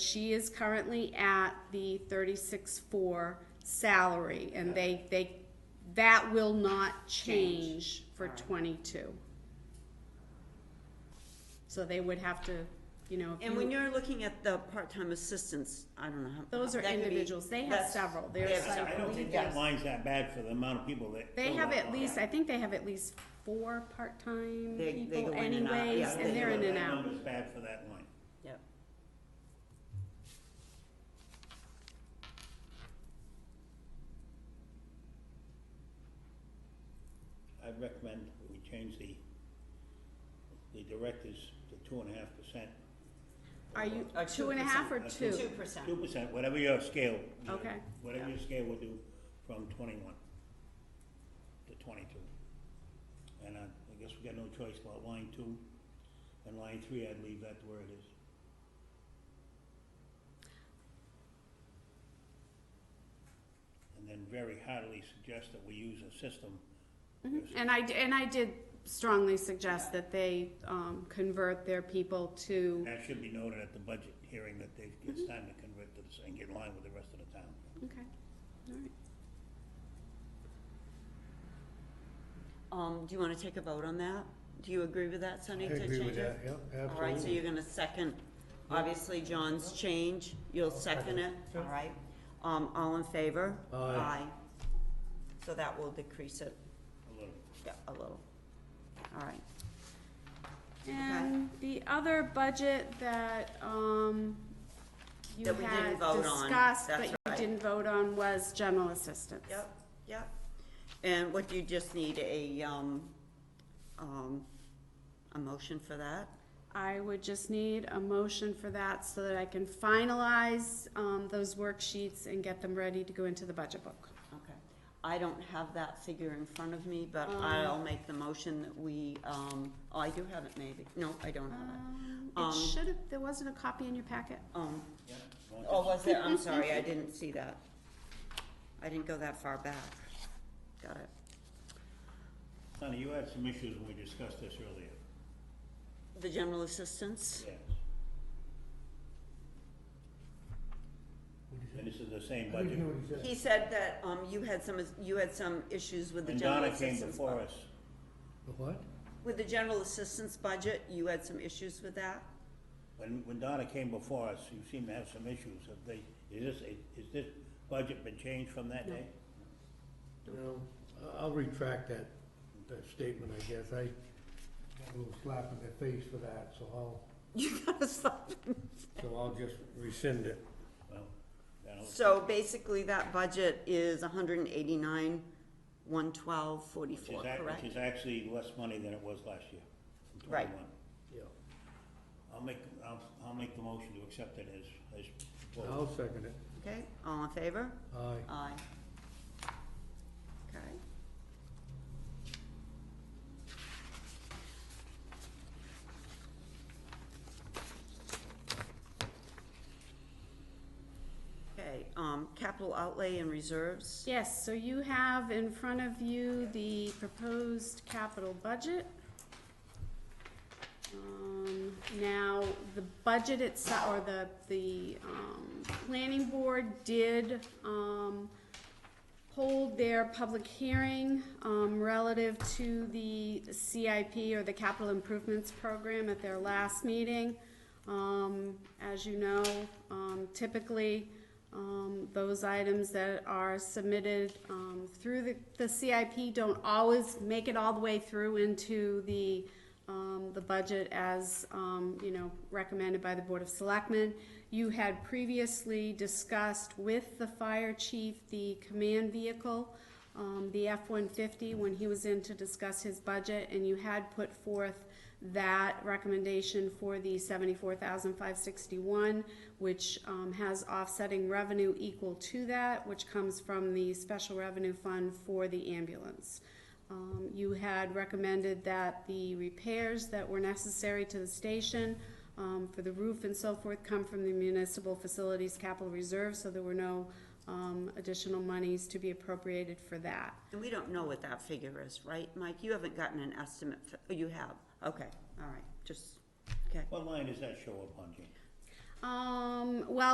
she is currently at the thirty-six four salary, and they, they, that will not change for Alright. twenty-two. So they would have to, you know, if And when you, you're looking at the part-time assistants, I don't know how. those are that could be individuals, they have less- several, they there's have like. I don't think Yes. that line's that bad for the amount of people that. They fill have that at line. least, I think they have at least four part-time They- they go people in and out, anyways, yeah. I don't and they're in think and that out. Number's bad for that line. Yep. I recommend we change the, the directors to two and a half percent. Are you Or two and a half or 2%. two? Two percent. Two percent, whatever your scale. you know, Okay. Whatever your scale will do from twenty-one to twenty-two. And I, I guess we got no choice about line two and line three, I'd leave that where it is. And then very heartily suggest that we use a system. Mhm. And I, d- and I did strongly suggest that they, um, convert their people to, That should be noted at the budget hearing that they, it's time to convert to this and get in line with the rest of the town. okay, alright. Um, do you wanna take a vote on that? Do you agree with that, Sunny, I to change it? agree with that, yeah, All right, so absolutely. you're gonna second, obviously John's change, you'll second it, all right? Um, all in favor? Aye. So that will decrease it, A little. yeah, a little. All right, And the other budget that, um, you That we didn't had vote on, discussed, but that's you right. didn't vote on was general assistance. yep, yep. And what, do you just need a, um, um, a motion for that? I would just need a motion for that so that I can finalize, um, those worksheets and get them ready to go into the budget book. Okay. I don't have that figure in front of me, but I'll make the motion that we, um, oh, I do have it maybe, no, I don't have it. Um, Um, it should have, there wasn't a copy in your packet. Um, Yeah. Want Oh, this? was there? I'm sorry, I didn't see that. I didn't go that far back. Got it. Sonny, you had some issues when we discussed this earlier. The general assistance? Yes. And this is the same I didn't budget. hear what he said. He said that, um, you had some, you had some issues with the And general Donna came assistance. before bu- us. The What? With the general assistance budget, you had some issues with that? When, when Donna came before us, you seemed to have some issues. Have they, is this, is this budget been changed from that day? No, I- I'll retract that, that statement, I guess. I got a little slap in the face for that, so I'll, You gotta stop. so I'll just rescind it. Well, I don't- So basically, that budget is hundred and eighty-nine, one twelve, which is forty-four, ac- correct? Which is actually less money than it was last year, in Right. twenty-one. Yeah. I'll make, I'll, I'll make the motion to accept it as, as. I'll second it. Okay, all in favor? Aye. Aye. Okay. Okay, um, capital outlay and reserves, Yes, so you have in front of you the proposed capital budget. Um, Now, the budget itself, or the, the um, planning board did um, hold their public hearing um, relative to the CIP or the capital improvements program at their last meeting. Um, As you know, um, typically, um, those items that are submitted um, through the- the CIP don't always make it all the way through into the, um, the budget as, um, you know, recommended by the Board of Selectmen. You had previously discussed with the fire chief the command vehicle, um, the F-150, when he was in to discuss his budget, and you had put forth that recommendation for the seventy-four thousand five sixty-one, which, um, has offsetting revenue equal to that, which comes from the special revenue fund for the ambulance. Um, you had recommended that the repairs that were necessary to the station, um, for the roof and so forth, come from the municipal facilities capital reserve, so there were no, um, additional monies to be appropriated for that. and we don't know what that figure is, right, Mike? You haven't gotten an estimate, f- oh, you have, okay, all right, just, okay. What line does that show up on, Jane? Um, well,